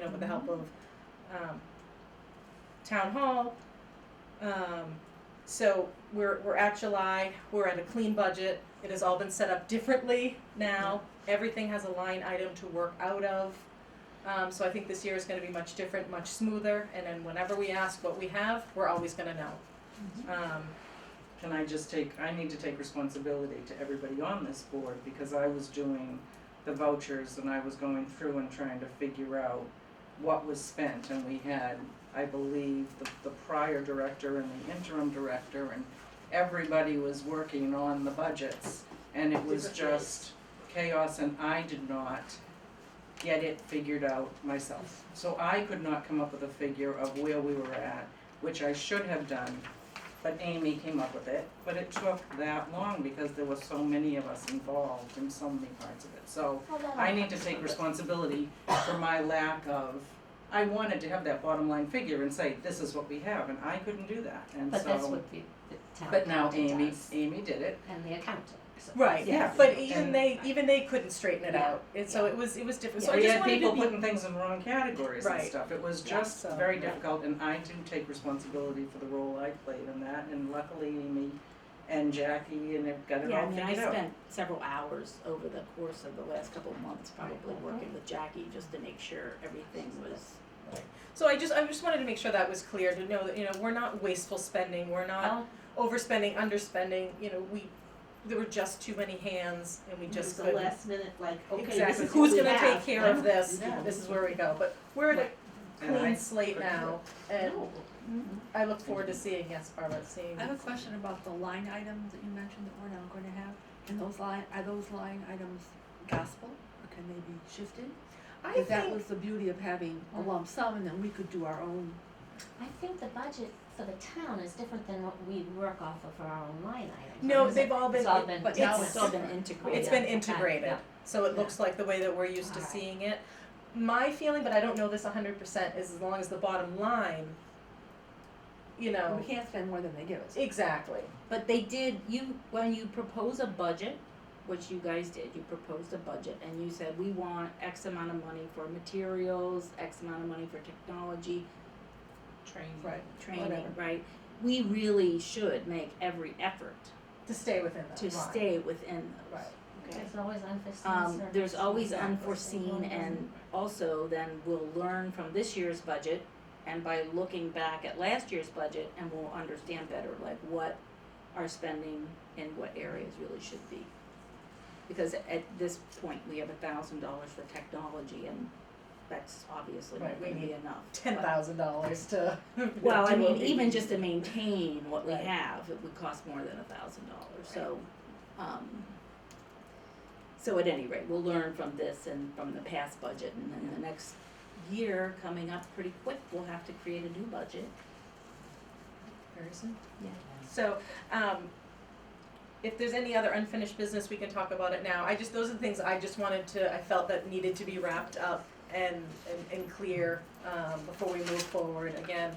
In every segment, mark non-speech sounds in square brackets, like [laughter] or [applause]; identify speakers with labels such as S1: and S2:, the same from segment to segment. S1: know, with the help of um, town hall. Um, so we're we're at July. We're at a clean budget. It has all been set up differently now. Everything has a line item to work out of. Um, so I think this year is going to be much different, much smoother. And then whenever we ask what we have, we're always going to know.
S2: Mm-hmm.
S1: Um,
S2: Can I just take, I need to take responsibility to everybody on this board because I was doing the vouchers and I was going through and trying to figure out what was spent and we had, I believe, the, the prior director and the interim director and everybody was working on the budgets and it was
S1: Different ways.
S2: just chaos and I did not get it figured out myself. So I could not come up with a figure of where we were at, which I should have done, but Amy came up with it. But it took that long because there were so many of us involved in so many parts of it. So I need to take responsibility for my lack of, I wanted to have that bottom line figure and say, this is what we have, and I couldn't do that, and so.
S3: But that's what the, the town
S2: But now
S3: accountant
S2: Amy,
S3: does,
S2: Amy did it,
S3: and the accountant, so.
S1: Right.
S2: Yeah.
S1: But even
S2: And-
S1: they even they couldn't straighten it
S3: Yeah.
S1: out. And so it was it was different. So I
S2: we
S1: just
S2: had
S1: wanted
S2: people
S1: to be
S2: putting things in wrong categories and
S1: Right.
S2: stuff, it was
S1: Yeah,
S2: just
S1: so-
S2: very
S3: Right.
S2: difficult, and I do take responsibility for the role I played in that, and luckily Amy and Jackie and they've got it
S4: Yeah, I
S2: all
S4: mean,
S2: figured out.
S4: I spent several hours over the course of the last couple of months probably working with Jackie just to make sure everything was.
S1: So I just I just wanted to make sure that was clear to know that you know we're not wasteful spending, we're not
S3: Well,
S1: overspending, underspending. You know we there were just too many hands and we just
S5: Just the
S1: couldn't.
S5: last minute, like, okay, this
S1: exactly
S5: is
S1: who's
S5: what we
S1: gonna
S5: have.
S1: take care of this?
S2: Yeah.
S1: This is where we go. But we're at a
S2: And I-
S1: clean slate now, and
S5: No.
S1: I look forward to seeing yes, Barbara, seeing.
S6: I have a question about the line items that you mentioned that we're not going to have. Can those line, are those line items gospel or can they be shifted?
S1: I
S6: Because that
S1: think-
S6: was the beauty of having a lump sum and then we could do our own.
S3: I think the budget for the town is different than what we work off of for our own line items.
S1: no,
S3: isn't it?
S1: they've all been.
S3: It's all been.
S6: but now
S1: it's-
S4: It's all been integrated.
S1: It's been
S3: Yeah.
S1: integrated,
S3: Yeah.
S1: so it
S6: Yeah.
S1: looks like the way that we're used to
S3: Alright.
S1: seeing it. My feeling, but I don't know this hundred percent, is as long as the bottom line, you know,
S4: Oh,
S6: We can't spend more than they give us.
S1: exactly.
S4: But they did, you, when you propose a budget, which you guys did, you proposed a budget and you said, we want X amount of money for materials, X amount of money for technology,
S5: Training.
S6: Right.
S4: training,
S1: Whatever.
S4: right? We really should make every effort
S1: To stay within that
S4: to
S1: line.
S4: stay within those.
S1: Right.
S4: Okay.
S3: There's always unforeseen
S4: Um, there's
S3: circumstances.
S4: always
S1: Exactly.
S4: unforeseen and also then we'll learn from this year's budget and by looking back at last year's budget and we'll understand better like what our spending in what areas really should be. Because at this point, we have a thousand dollars for technology and that's obviously
S1: Right,
S4: not
S1: we
S4: gonna be
S1: need
S4: enough.
S1: Ten
S4: but-
S1: thousand dollars to. [laughs]
S4: Well, I
S1: to
S4: mean,
S1: a-
S4: even just to maintain what we
S1: Right.
S4: have, it would cost more than a thousand dollars, so, um. So at any rate, we'll learn from this and from the past budget, and then the next year coming up pretty quick, we'll have to create a new [laughs] budget.
S1: Very soon.
S4: Yeah.
S1: So, um, if there's any other unfinished business, we can talk about it now. I just, those are the things I just wanted to, I felt that needed to be wrapped up and, and, and clear, um, before we move forward again.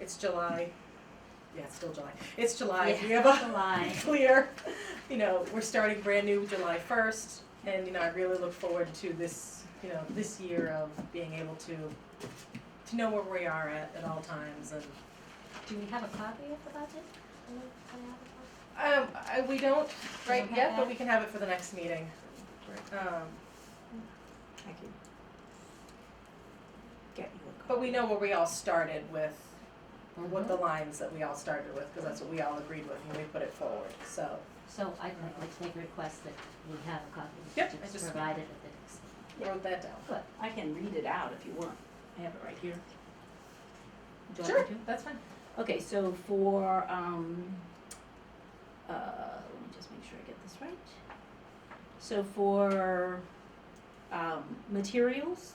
S1: It's July, yeah, it's still July, it's July, we have a [laughs]
S3: July.
S1: clear, you know, we're starting brand new July first. And, you know, I really look forward to this, you know, this year of being able to, to know where we are at, at all times and
S3: Do we have a copy of the budget? Do we- do we have a copy?
S1: Um, I, we don't right
S3: don't have
S1: yet, but
S3: that?
S1: we can have it for the next meeting. Um,
S4: I can get you a copy.
S1: but we know where we all started with, what the
S4: Mm-hmm.
S1: lines that we all started with, because that's what we all agreed with when we put it forward, so.
S3: So I'd like to make a request that we have a copy of the
S1: Yep, I
S3: budget
S1: just-
S3: provided at the next.
S1: Wrote that down.
S4: I can read it out if you want, I have it right here. Do you want me to?
S1: that's fine.
S4: Okay, so for, um, uh, let me just make sure I get this right. So for, um, materials,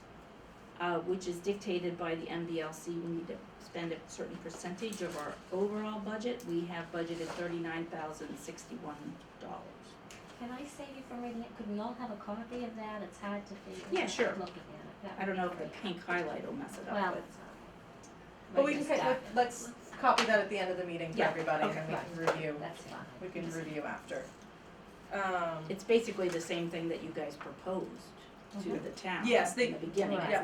S4: uh, which is dictated by the MBLC, we need to spend a certain percentage of our overall budget. We have budgeted thirty-nine thousand sixty-one dollars.
S3: Can I save you from reading it? Could we all have a copy of that? It's hard to figure.
S4: Yeah,
S3: out
S4: sure.
S3: Looking at it. That
S4: I don't
S3: would
S4: know
S3: be
S4: if the
S3: great.
S4: pink highlight will mess it
S3: Well, um,
S4: up,
S3: that's all right.
S1: But
S4: but
S1: we
S4: like
S1: can,
S4: this
S1: ca-
S3: uh,
S4: stuff.
S1: let- let's copy that at the end of the meeting for
S4: Yeah,
S1: everybody, and
S4: okay,
S1: we can review,
S3: That's fine.
S1: we can
S3: Just-
S1: review after. Um,
S4: It's basically the same thing that you guys proposed,
S3: to the town
S1: Yes, they-
S3: in the beginning.
S4: Right.
S1: yeah,